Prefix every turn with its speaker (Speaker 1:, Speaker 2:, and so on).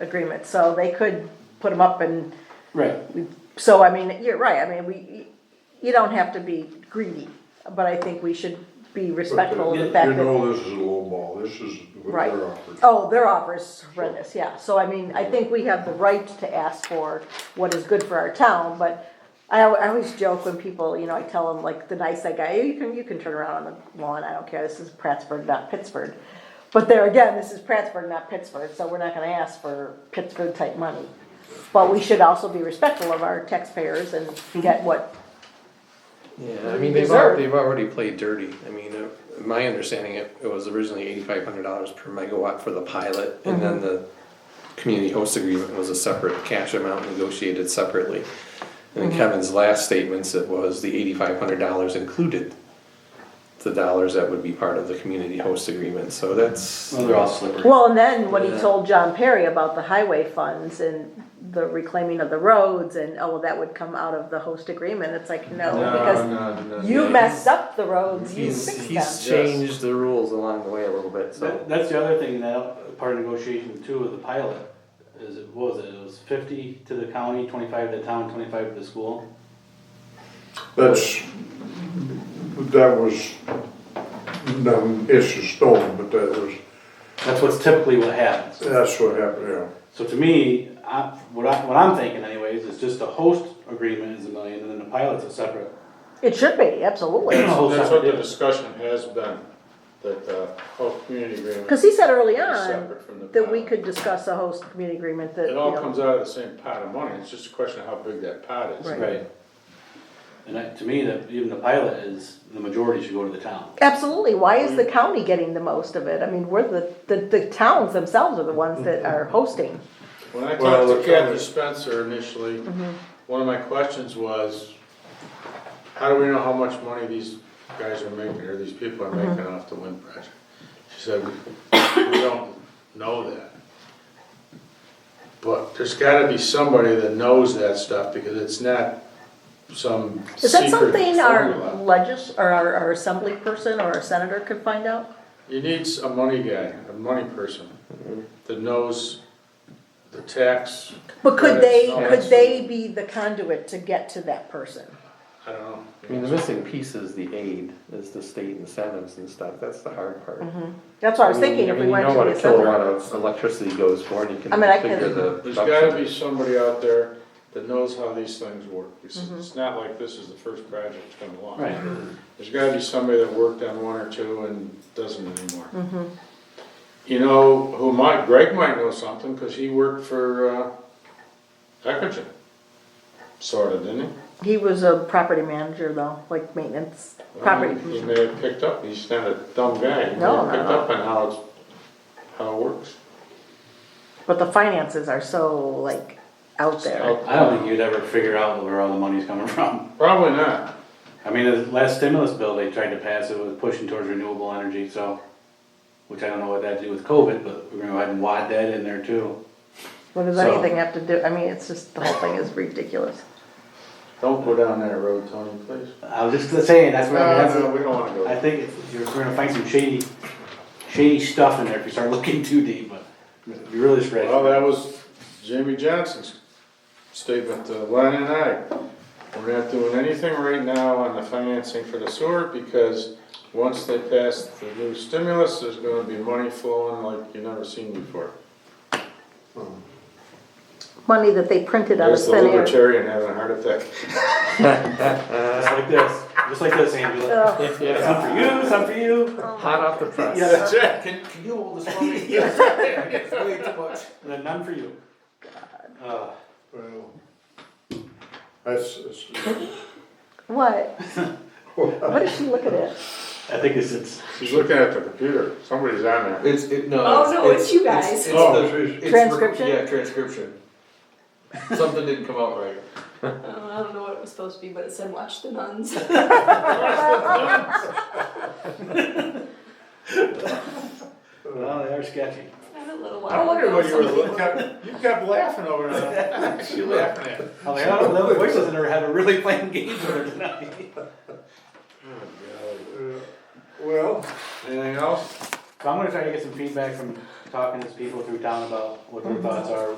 Speaker 1: agreements, so they could put them up and,
Speaker 2: Right,
Speaker 1: so I mean, you're right, I mean, we, you don't have to be greedy, but I think we should be respectful of the
Speaker 3: You
Speaker 1: fact that,
Speaker 3: know, this is a low ball, this is what
Speaker 1: Right.
Speaker 3: they're offering.
Speaker 1: oh, their offer is horrendous, yeah, so I mean, I think we have the right to ask for what is good for our town, but I, al- I always joke when people, you know, I tell them, like, the nice guy, "Oh, you can, you can turn around on the lawn, I don't care, this is Prattsburg, not Pittsburgh. But there again, this is Prattsburg, not Pittsburgh, so we're not gonna ask for Pittsburgh-type money. But we should also be respectful of our taxpayers and get what
Speaker 4: Yeah, I mean, they've, al-
Speaker 1: Deserved.
Speaker 4: they've already played dirty. I mean, uh, my understanding, it, it was originally eighty-five hundred dollars per megawatt for the pilot, and then the community host agreement was a separate cash amount negotiated separately. And in Kevin's last statements, it was the eighty-five hundred dollars included the dollars that would be part of the community host agreement, so that's.
Speaker 2: well, they're all slippery.
Speaker 1: Well, and then when he
Speaker 4: Yeah.
Speaker 1: told John Perry about the highway funds and the reclaiming of the roads and, oh, well, that would come out of the host agreement, it's like, no, because you messed up the roads, you
Speaker 4: He's,
Speaker 1: fixed
Speaker 4: he's
Speaker 1: them.
Speaker 4: changed the rules along the way a little bit, so.
Speaker 2: That, that's the other thing, that part of negotiation too with the pilot, is it, what was it, it was fifty to the county, twenty-five to the town, twenty-five to the school?
Speaker 3: That's, that was, no, it's a stone, but that was,
Speaker 2: That's what's typically what happens.
Speaker 3: that's what happened, yeah.
Speaker 2: So to me, I, what I, what I'm thinking anyways, is just the host agreement is a million, and then the pilot's a separate.
Speaker 1: It should be, absolutely,
Speaker 2: whole
Speaker 5: That's what
Speaker 2: separate
Speaker 5: the
Speaker 2: deal.
Speaker 5: discussion has been, that the whole community agreement.
Speaker 1: cause he said early
Speaker 5: is
Speaker 1: on
Speaker 5: separate from the
Speaker 1: that we
Speaker 5: pilot.
Speaker 1: could discuss a host community agreement that, you
Speaker 5: It all comes
Speaker 1: know.
Speaker 5: out of the same pot of money, it's just a question of how big that pot is.
Speaker 1: Right.
Speaker 2: Right. And I, to me, that, even the pilot is, the majority should go to the town.
Speaker 1: Absolutely, why is the
Speaker 5: Mm.
Speaker 1: county getting the most of it? I mean, we're the, the, the towns themselves are the ones that are hosting.
Speaker 5: When I
Speaker 3: Well,
Speaker 5: talked to
Speaker 3: look,
Speaker 5: Kathy
Speaker 3: I-
Speaker 5: Spencer initially,
Speaker 1: Mm-hmm.
Speaker 5: one of my questions was, how do we know how much money these guys are making, or these people are
Speaker 1: Mm-hmm.
Speaker 5: making off the wind project? She said, we we don't know that. But there's gotta be somebody that knows that stuff, because it's not some
Speaker 1: Is that
Speaker 5: secret
Speaker 1: something our
Speaker 5: formula.
Speaker 1: legis, or our, our assembly person or our senator could find out?
Speaker 5: You need a money guy, a money person, that knows the tax,
Speaker 1: But could they,
Speaker 5: Yeah,
Speaker 1: could
Speaker 5: it's-
Speaker 1: they be the conduit to get to that person?
Speaker 5: I don't know.
Speaker 4: I mean, the missing piece is the aid, is the state incentives and stuff, that's the hard part.
Speaker 1: That's what I was thinking, if we went to the
Speaker 4: You know what a
Speaker 1: assembly.
Speaker 4: kilowatt of electricity goes for, and you can
Speaker 1: I mean, I
Speaker 4: figure
Speaker 1: can-
Speaker 4: the.
Speaker 5: There's gotta be somebody out there that knows how these things work, it's, it's not like this is the first project that's come along.
Speaker 2: Right.
Speaker 5: There's gotta be somebody that worked on one or two and doesn't anymore. You know, who might, Greg might know something, cause he worked for, uh, Ecogen, sorta, didn't he?
Speaker 1: He was a property manager though, like maintenance, property
Speaker 5: He
Speaker 1: commissioner.
Speaker 5: may Um, have picked up, he's not a dumb guy, he may
Speaker 1: No,
Speaker 5: have
Speaker 1: no,
Speaker 5: picked
Speaker 1: no.
Speaker 5: up on how it's, how it works.
Speaker 1: But the finances are so like out there.
Speaker 2: I don't think you'd ever figure out where all the money's coming from.
Speaker 5: Probably not,
Speaker 2: I mean, the last stimulus bill they tried to pass, it was pushing towards renewable energy, so, which I don't know what that had to do with COVID, but we're gonna go ahead and wad that in there too.
Speaker 1: What does
Speaker 2: So-
Speaker 1: anything have to do, I mean, it's just, the whole thing is ridiculous.
Speaker 5: don't go down that road, Tony, please.
Speaker 2: I was just saying, that's what I'm,
Speaker 5: No, no,
Speaker 2: that's,
Speaker 5: we don't wanna go.
Speaker 2: I think it's- you're, we're gonna find some shady, shady stuff in there if you start looking too deep, but you really spread.
Speaker 5: Well, that was Jamie Johnson's statement to Len and I. We're not doing anything right now on the financing for the sewer because once they pass the new stimulus, there's gonna be money flowing like you've never seen before.
Speaker 1: Money that they printed out of
Speaker 5: There's the
Speaker 1: thin air.
Speaker 5: libertarian having a heart attack.
Speaker 2: Just like this, just like this, Angela.
Speaker 1: Ugh.
Speaker 2: Some for you, some for you.
Speaker 4: Hot off the press.
Speaker 5: That's it. Can-
Speaker 2: Can you hold this for me?
Speaker 5: Way too much.
Speaker 2: And then none for you. Uh,
Speaker 3: Well, That's, that's-
Speaker 1: What? What did she look at it?
Speaker 2: I think it's, it's,
Speaker 5: She's looking at the computer, somebody's on there.
Speaker 6: It's it, no.
Speaker 7: Oh,
Speaker 6: it's,
Speaker 7: no, it's you guys.
Speaker 6: It's, it's
Speaker 3: Oh,
Speaker 6: the,
Speaker 3: geez.
Speaker 6: it's rec-
Speaker 1: Transcription?
Speaker 6: yeah, transcription. Something didn't come out right.
Speaker 7: Um, I don't know what it was supposed to be, but it said watch the nuns.
Speaker 2: well, they are sketchy.
Speaker 7: I'm a little
Speaker 5: I wondered what Oh, you were
Speaker 7: Some
Speaker 5: looking at, you kept laughing over there. She laughing at.
Speaker 2: I'm like, I don't know, the voice doesn't ever have a really playing game with her tonight.
Speaker 3: well,
Speaker 5: Anything else?
Speaker 7: Mm-hmm.
Speaker 2: So I'm gonna try to get some feedback from talking to people through town about what their thoughts are